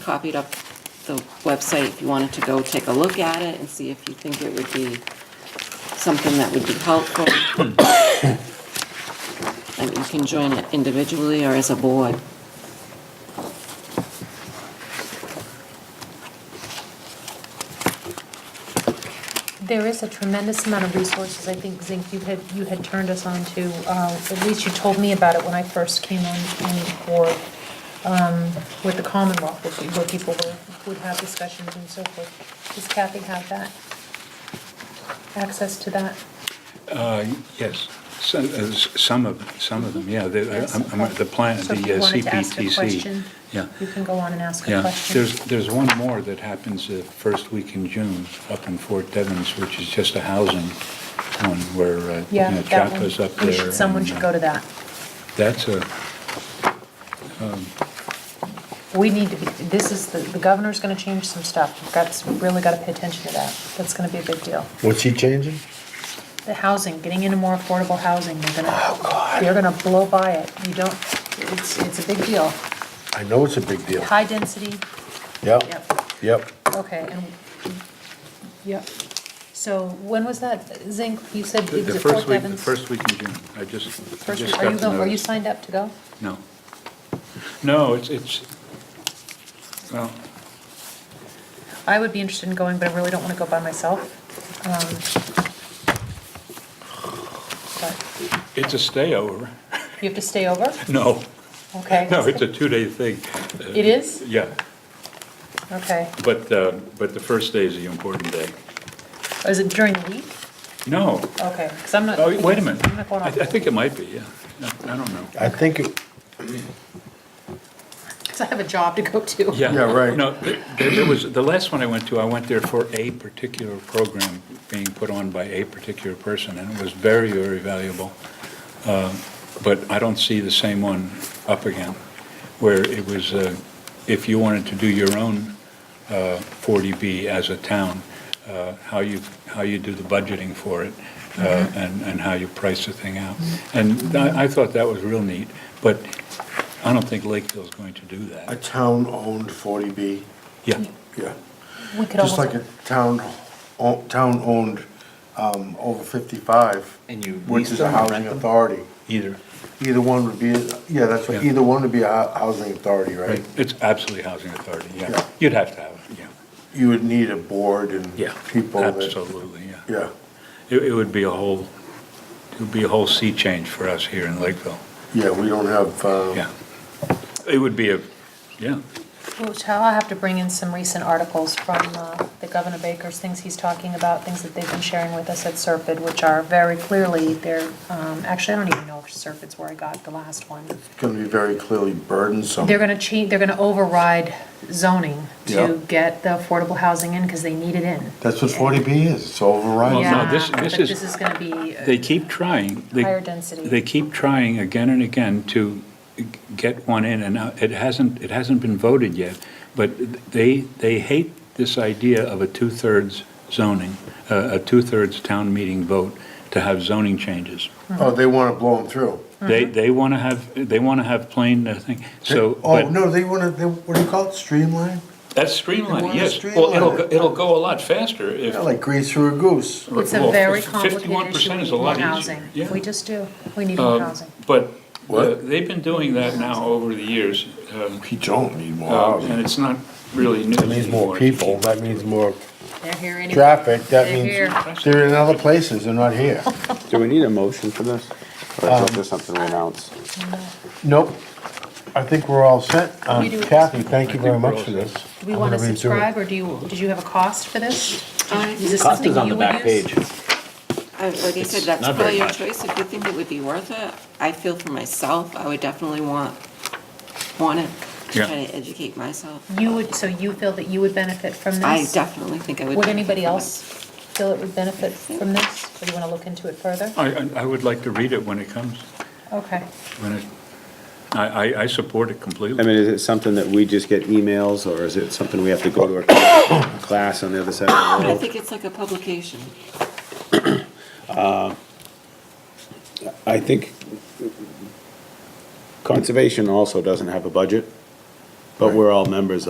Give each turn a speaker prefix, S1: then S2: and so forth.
S1: copied up the website if you wanted to go take a look at it and see if you think it would be something that would be helpful. And you can join it individually or as a board.
S2: There is a tremendous amount of resources, I think, Zink, you had, you had turned us on to, uh, at least you told me about it when I first came on, on the board, um, with the Commonwealth, where pe- where people were, would have discussions and so forth. Does Kathy have that? Access to that?
S3: Uh, Yes, some, uh, s- some of, some of them, yeah. The
S2: Yes.
S3: I'm- I'm- the plan, the
S2: So
S3: uh,
S2: if you wanted to ask a
S3: CPTC.
S2: question,
S3: Yeah,
S2: you can go on and ask a
S3: yeah.
S2: question.
S3: There's, there's one more that happens the first week in June up in Fort Devens, which is just a housing one where, uh, you
S2: Yeah,
S3: know,
S2: that one.
S3: Chaco's up
S2: We
S3: there.
S2: should- Someone
S3: and,
S2: should
S3: uh,
S2: go to that.
S3: That's a,
S2: We need to be, this is, the the governor's going to change some stuff. We've got, really got to pay attention to that. That's going to be a big deal.
S4: What's he changing?
S2: The housing, getting into more affordable housing, they're gonna. They're gonna blow by it. You don't, it's, it's a big deal.
S4: I know it's a big deal.
S2: High density,
S4: Yep,
S2: yep,
S4: yep.
S2: okay, and, yep. So when was that, Zink, you said
S3: the
S2: it
S3: the
S2: was at Fort
S3: first week, the
S2: Devens?
S3: first week in June. I just, I
S2: First week.
S3: just got
S2: Are you
S3: the
S2: going, are you
S3: notice.
S2: signed up to go?
S3: No. No, it's, it's, well,
S2: I would be interested in going, but I really don't wanna go by myself. Um, But
S3: it's a stayover.
S2: You have to stay over?
S3: No,
S2: Okay.
S3: no, it's a two-day thing. Uh,
S2: It is?
S3: Yeah.
S2: Okay.
S3: But, uh, but the first day is the important day.
S2: Oh, Is it during the week?
S3: No,
S2: Okay, because I'm not.
S3: oh, wait a minute.
S2: I'm not going
S3: I
S2: off.
S3: I think it might be, yeah. I I don't know.
S4: I think, it-
S2: Because I have a job to go to.
S4: Yeah, right.
S3: No, th- th- there was, the last one I went to, I went there for a particular program being put on by a particular person, and it was very, very valuable. Um, But I don't see the same one up again, where it was, uh, if you wanted to do your own uh, 40B as a town, uh, how you, how you do the budgeting for it, uh,
S4: Mm-hmm.
S3: and, and how you price the thing out. And I, I thought that was real neat, but I don't think Lakeville's going to do that.
S4: a town-owned 40B,
S3: Yeah,
S4: yeah.
S2: We could
S4: Just like
S2: almost,
S4: a town, o- town-owned um, over 55.
S5: And you
S4: Which
S5: lease
S4: is
S5: them
S4: a
S5: or
S4: housing
S5: rent them?
S4: authority.
S3: either.
S4: Either one would be, yeah, that's right,
S3: Yeah.
S4: either one would be a hou- housing authority,
S3: Right,
S4: right?
S3: it's absolutely housing authority, yeah.
S4: Yeah.
S3: You'd have to have it, yeah.
S4: You would need a board and people that,
S3: Absolutely, yeah.
S4: yeah,
S3: It, it would be a whole, it would be a whole sea change for us here in Lakeville,
S4: yeah, we don't have, uh,
S3: yeah. It would be a, yeah,
S2: which I'll have to bring in some recent articles from uh, the Governor Baker's, things he's talking about, things that they've been sharing with us at Serpide, which are very clearly, they're, um, actually, I don't even know if Serpide's where I got the last one.
S4: it's gonna be very clearly burdensome.
S2: They're gonna change, they're gonna override zoning
S4: Yeah.
S2: to get the affordable housing in, because they need it in.
S4: That's what 40B is, it's overriding.
S3: Well, no,
S2: Yeah,
S3: this-
S2: but
S3: this is-
S2: This is gonna be, uh,
S3: they keep trying. They-
S2: Higher density.
S3: They keep trying again and again to get one in, and uh, it hasn't, it hasn't been voted yet, but they, they hate this idea of a two-thirds zoning, uh, a two-thirds town meeting vote to have zoning changes.
S4: Oh, they want to blow them through.
S3: They,
S2: Uh-huh.
S3: they want to have, they want to have plain, uh, thing, so,
S4: Oh,
S3: but
S4: no, they want to, they, what do you call it, streamline?
S3: that's
S4: They
S3: streamlining,
S4: wanna
S3: yes. Well, it'll,
S4: streamline
S3: go-
S4: it.
S3: it'll go a lot faster if.
S4: Yeah, like grease through a goose.
S2: it's a
S3: well,
S2: very
S3: fif-
S2: complicated issue,
S3: 51%
S2: we
S3: is
S2: need
S3: a
S2: more
S3: lot easier,
S2: housing.
S3: yeah. Um,
S2: We just do, we need more housing.
S3: But uh,
S4: What?
S3: they've been doing that now over the years, um,
S4: We don't need more
S3: uh, and it's not really news
S4: Oh, That means more
S3: anymore.
S4: people, that means more
S2: They're here anyway.
S4: traffic, that
S2: They're
S4: means
S2: here.
S4: they're in other places, they're not here.
S6: Do we need a motion for this? Or is
S5: Um,
S6: this something we announce?
S4: Nope, I think we're all set. Um,
S2: We do.
S4: Kathy, thank you
S3: I think
S4: very
S3: we're
S4: much
S3: all
S4: for
S3: set.
S4: this.
S2: Do we
S4: I'm
S2: want to
S4: gonna redo it.
S2: subscribe, or do you, did you have a cost for this? Is this
S5: Cost
S2: something
S5: is on
S2: you
S5: the
S2: would
S5: back
S2: use?
S5: page.
S1: I- Like I said,
S5: It's
S1: that's
S5: not
S1: probably
S5: very
S1: your
S5: much.
S1: choice. If you think it would be worth it, I feel for myself, I would definitely want, want it, to
S3: Yeah.
S1: try to educate myself.
S2: You would, so you feel that you would benefit from this?
S1: I definitely think I would.
S2: Would
S1: benefit
S2: anybody
S1: from it.
S2: else feel it would benefit from this? Or do you want to look into it further?
S3: I, I- I would like to read it when it comes,
S2: Okay.
S3: when it, I, I, I support it
S6: I
S3: completely.
S6: mean, is it something that we just get emails, or is it something we have to go to a class on the other side of the
S1: I
S6: world?
S1: think it's like a publication.
S6: I think conservation also doesn't have a budget, but we're all members